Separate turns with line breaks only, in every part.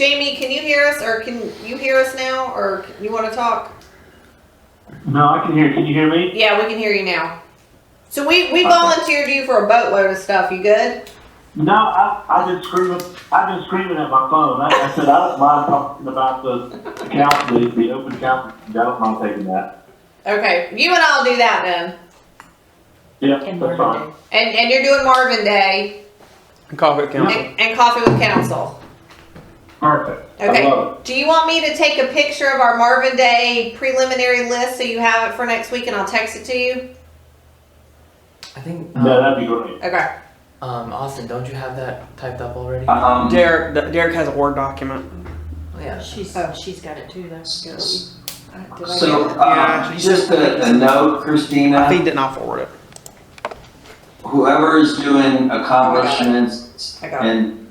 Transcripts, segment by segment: Jamie, can you hear us or can you hear us now or you want to talk?
No, I can hear. Can you hear me?
Yeah, we can hear you now. So we, we volunteered you for a boatload of stuff. You good?
No, I, I've been screaming. I've been screaming at my phone. I, I said I don't mind talking about the council, the, the open council. I don't mind taking that.
Okay, you and I'll do that then.
Yeah,
And
that's
Marvin
fine.
Day.
And and you're doing Marvin Day
Coffee Council.
and, and coffee with council.
Perfect.
Okay.
Uh-huh.
I love
Do you want me to take a picture of our Marvin Day preliminary list so you have it for next week and I'll text it to you?
I think
it. No,
um,
that'd be great.
Okay.
um, Austin, don't you have that typed up already?
Um,
Derek, Derek has a Word document.
Oh, yeah.
She's,
Oh.
she's got it too, though.
So,
Uh, did I get it?
Yeah,
um,
she
just a, a note,
I
Christina,
think did not forward it.
whoever is doing accomplishments
I got it.
and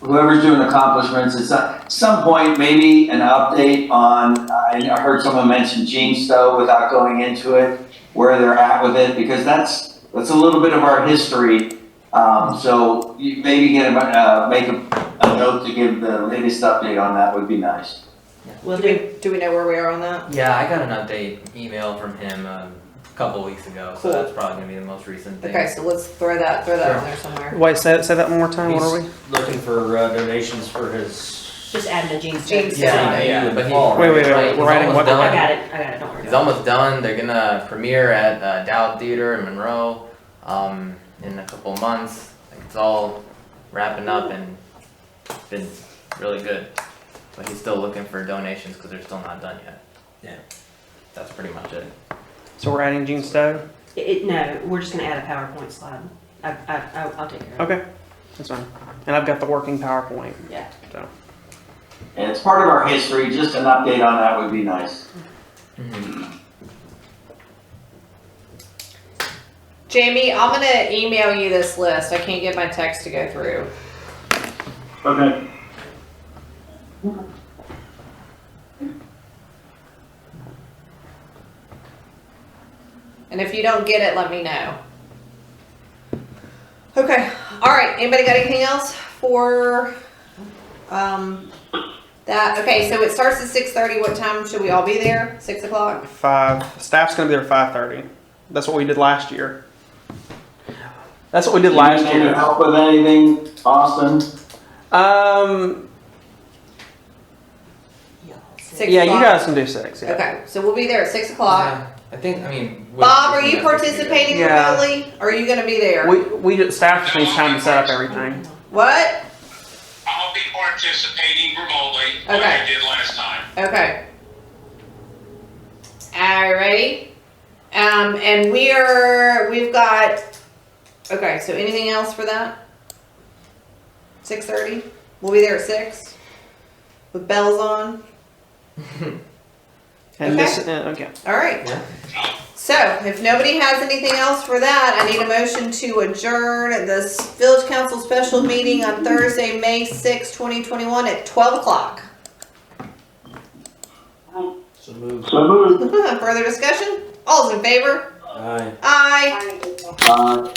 whoever's doing accomplishments, at some, some point, maybe an update on, I I heard someone mention Gene Stowe without going into it, where they're at with it, because that's, that's a little bit of our history. Um, so you maybe get, a- uh, make a, a note to give the latest update on that would be nice.
Will
Do
do.
we, do we know where we are on that?
Yeah, I got an update email from him um, a couple weeks ago, so
Cool.
that's probably gonna be the most recent thing.
Okay, so let's throw that throw that
Sure.
on there somewhere.
Wait, say, say that one more time. What are we?
looking for uh, donations for his.
Just add the jeans.
Jeans.
Yeah,
Yeah,
yeah,
yeah.
but he,
wait,
Wait,
wait,
right,
we're
he's
writing
almost
what-
I
done.
got it, I got it, don't worry
He's
about
almost done. They're gonna premiere at uh, Dowd Theater in Monroe um, in a couple months. Like, it's all wrapping up and it's been really good. But he's still looking for donations because they're still not done yet.
Yeah.
That's pretty much it.
So we're adding Gene Stowe.
it. It, it- no, we're just gonna add a PowerPoint slide. I, I, I'll- I'll take care of it.
Okay, that's fine. And I've got the working PowerPoint.
Yeah.
So
And it's part of our history, just an update on that would be nice.
Mm-hmm.
Jamie, I'm gonna email you this list. I can't get my text to go through.
Okay.
And if you don't get it, let me know. Okay. All right. Anybody got anything else for um that? Okay. So it starts at six thirty. What time should we all be there? Six o'clock.
five. Staff's gonna be there five thirty. That's what we did last year. That's what we did last
Need
year.
help with anything, Austin?
Um,
Six
yeah, you
o'clock?
guys can do six. Yeah.
Okay. So we'll be there at six o'clock.
Yeah, I think, I mean. with-
Bob, are you
yeah, I think we did.
participating
Yeah.
remotely? Or are you going to be there?
We we just- staff just needs time to set up everything.
what?
I'll be participating remotely, like
Okay.
I did last time.
Okay. All righty. Um, and we are, we've got, okay, so anything else for that? 6.30? We'll be there at 6 with bells on.
And this uh, okay.
All right.
Yeah.
So if nobody has anything else for that, I need a motion to adjourn this village council special meeting on Thursday, May 6, 2021 at 12 o'clock.
So move.
So moved.
Further discussion? All's in favor?
Aye.
Aye.
Uh,